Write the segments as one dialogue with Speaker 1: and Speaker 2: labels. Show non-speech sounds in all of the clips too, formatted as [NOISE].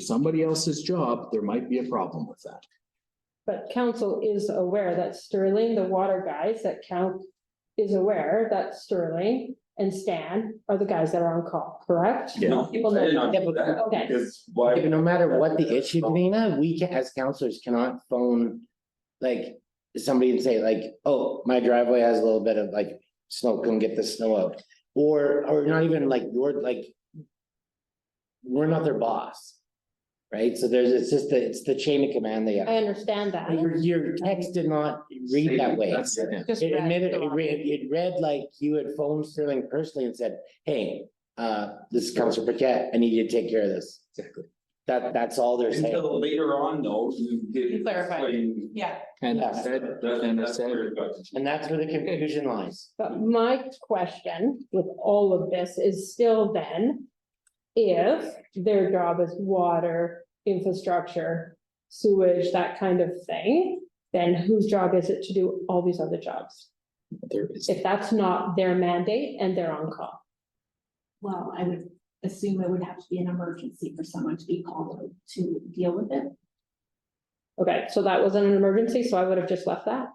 Speaker 1: somebody else's job, there might be a problem with that.
Speaker 2: But council is aware that Sterling, the water guys that count is aware that Sterling and Stan are the guys that are on call, correct?
Speaker 1: Yeah.
Speaker 3: No,
Speaker 2: People
Speaker 3: I did
Speaker 2: know.
Speaker 3: not do that,
Speaker 2: Okay,
Speaker 3: because why?
Speaker 4: Yeah, but no matter what the issue, Dana, we ca- as counselors cannot phone, like, somebody and say like, oh, my driveway has a little bit of like, snow, come get the snow out. Or, or not even like, you're like, we're not their boss, right? So there's, it's just, the it's the chain of command they have.
Speaker 2: I understand that.
Speaker 4: Your, your text did not read that way.
Speaker 1: That's, yeah.
Speaker 2: Just
Speaker 4: It
Speaker 2: read
Speaker 4: admitted,
Speaker 2: the
Speaker 4: it
Speaker 2: wrong-
Speaker 4: read, it read like you had phoned Sterling personally and said, hey, uh, this is Counselor Paquette, I need you to take care of this.
Speaker 1: Exactly.
Speaker 4: That, that's all they're saying.
Speaker 3: Until later on, though, you did.
Speaker 5: You clarified.
Speaker 3: explain-
Speaker 5: Yeah,
Speaker 1: And I
Speaker 4: Yeah.
Speaker 1: said,
Speaker 3: That-
Speaker 1: and I
Speaker 3: that's
Speaker 1: said,
Speaker 3: where it got to-
Speaker 4: And that's where the confusion lies.
Speaker 2: But my question with all of this is still then, if their job is water, infrastructure, sewage, that kind of thing, then whose job is it to do all these other jobs?
Speaker 1: there is,
Speaker 2: If that's not their mandate and they're on call.
Speaker 6: Well, I would assume it would have to be an emergency for someone to be called to deal with it.
Speaker 2: Okay, so that wasn't an emergency, so I would have just left that.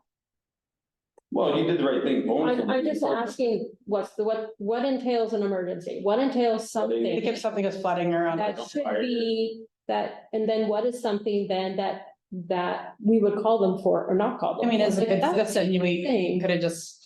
Speaker 3: Well, you did the right thing. phoning
Speaker 2: I'm, I'm
Speaker 3: somebody.
Speaker 2: just asking, what's the, what, what entails an emergency? What entails
Speaker 5: like
Speaker 2: something
Speaker 5: if something is flooding around.
Speaker 2: that should be, that, and then what is something then that, that we would call them for or not call
Speaker 5: I
Speaker 2: them?
Speaker 5: mean, as a
Speaker 2: for? Like, that's
Speaker 5: consistent, you
Speaker 2: the thing.
Speaker 5: could have just.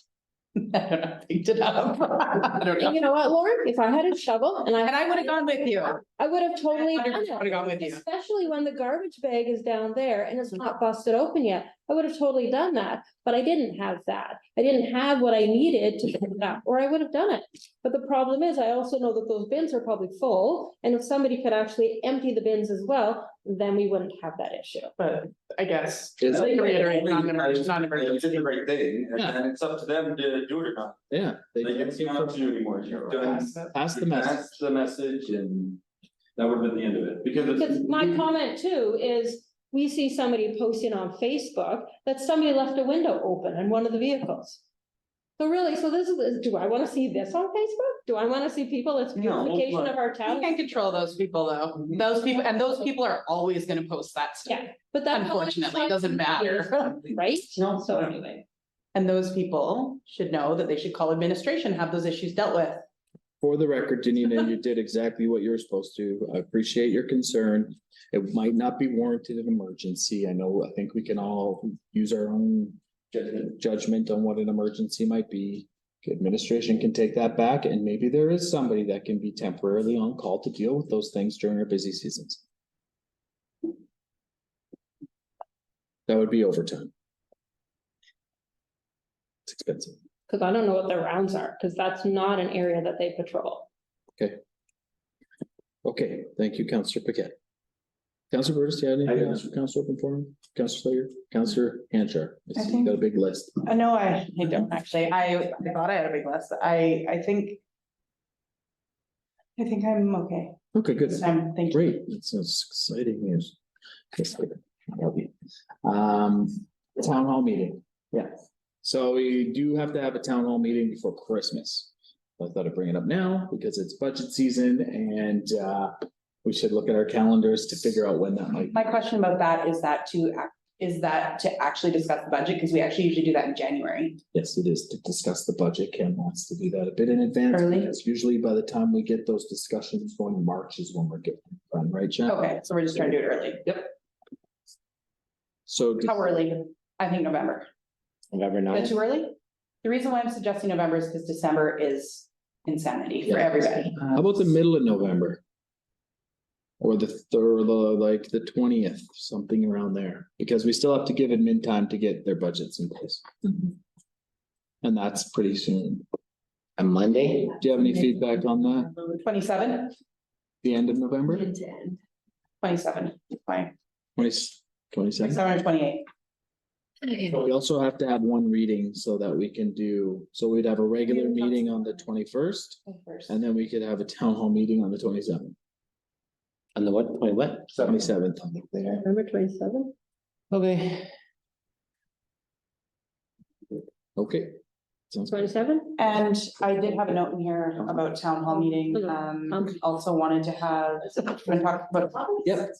Speaker 5: I don't know, picked it up. I don't know.
Speaker 2: You know what, Lauren, if I had a shovel and I.
Speaker 5: And I would have gone with you.
Speaker 2: I would have totally done
Speaker 5: 100%
Speaker 2: it,
Speaker 5: Would have gone with you. Mm-hmm.
Speaker 2: especially when the garbage bag is down there and it's not busted open yet. I would have totally done that, but I didn't have that. I didn't have what I needed to pick it up, or I would have done it. But the problem is, I also know that those bins are probably full, and if somebody could actually empty the bins as well, then we wouldn't have that issue.
Speaker 5: But I guess.
Speaker 1: Is-
Speaker 5: like, reiterate, non-emer-
Speaker 3: Yeah, You
Speaker 5: non-emergency.
Speaker 3: did the right thing, and
Speaker 1: Yeah.
Speaker 3: then it's up to them to do it or not.
Speaker 1: yeah. they
Speaker 3: Like,
Speaker 1: did.
Speaker 3: it's not up to you anymore. You've done.
Speaker 1: Pass the message.
Speaker 3: That's the message and that would have been the end of it, because. it's-
Speaker 2: Because my comment too is, we see somebody posting on Facebook that somebody left a window open in one of the vehicles. So really, so this is, do I wanna see this on Facebook? Do I wanna see people, it's
Speaker 3: No, well,
Speaker 2: beautification of our
Speaker 5: You
Speaker 2: town?
Speaker 5: can control those people though. Those people, and those people are always gonna post that stuff.
Speaker 2: Yeah, but that.
Speaker 5: Unfortunately, it doesn't matter.
Speaker 2: [LAUGHS] Right?
Speaker 3: No,
Speaker 2: So
Speaker 3: no.
Speaker 2: anyway,
Speaker 5: And those people should know that they should call administration, have those issues dealt with.
Speaker 1: For the record, Danita, you did exactly what you were supposed to. I appreciate your concern. It might not be warranted an emergency. I know, I think we can all use our own judgment, judgment on what an emergency might be. Administration can take that back and maybe there is somebody that can be temporarily on call to deal with those things during our busy seasons. That would be overtime. It's expensive.
Speaker 2: cause I don't know what their rounds are, cause that's not an area that they patrol.
Speaker 1: Okay, thank you, Counselor Paquette. Counselor Burgess, do you have anything
Speaker 3: I-
Speaker 1: else for Counselor Open Forum? Counselor Slayer, Counselor Hanchar, I see you got a big list.
Speaker 5: Uh, no, I, I don't actually. I, I thought I had a big list. I, I think. I think I'm okay.
Speaker 1: Okay, good.
Speaker 5: This time, thank you.
Speaker 1: Great, that sounds exciting news. Yes, good. Love you. Um, town hall meeting. Yeah. So we do have to have a town hall meeting before Christmas. I thought I'd bring it up now because it's budget season and uh, we should look at our calendars to figure out when that might.
Speaker 5: My question about that is that to, ac- is that to actually discuss the budget? Because we actually usually do that in January.
Speaker 1: Yes, it is to discuss the budget. Ken wants to do that a bit in advance.
Speaker 5: Early.
Speaker 1: It's usually by the time we get those discussions going in March is when we're getting done, right, Jen?
Speaker 5: Okay, so we're just trying to do it early.
Speaker 1: So
Speaker 5: How early? I think November.
Speaker 4: November
Speaker 5: Is that
Speaker 4: ninth.
Speaker 5: too early? The reason why I'm suggesting November is because December is insanity for
Speaker 1: Yeah.
Speaker 5: everybody.
Speaker 1: how about the middle of November? Or the third, like the twentieth, something around there, because we still have to give admin time to get their budgets in place.
Speaker 5: Mm-hmm.
Speaker 1: And that's pretty soon.
Speaker 4: On Monday?
Speaker 1: Do you have any feedback on that?
Speaker 5: Twenty-seven,
Speaker 1: The end of November,
Speaker 6: Mid to end.
Speaker 5: twenty-seven, fine.
Speaker 1: twenty, twenty-seven?
Speaker 5: Twenty-seven or twenty-eight.
Speaker 1: But we also have to have one reading so that we can do, so we'd have a regular meeting on the twenty-first, and then we could have a town hall meeting on the twenty-seventh,
Speaker 4: On the what, wait, what?
Speaker 1: twenty-seventh.
Speaker 2: November twenty-seven?
Speaker 4: Okay.
Speaker 1: Okay, Sounds good.
Speaker 2: twenty-seven?
Speaker 5: And I did have a note in here about town hall meeting, um, also wanted to have, we talked about.
Speaker 1: Yep.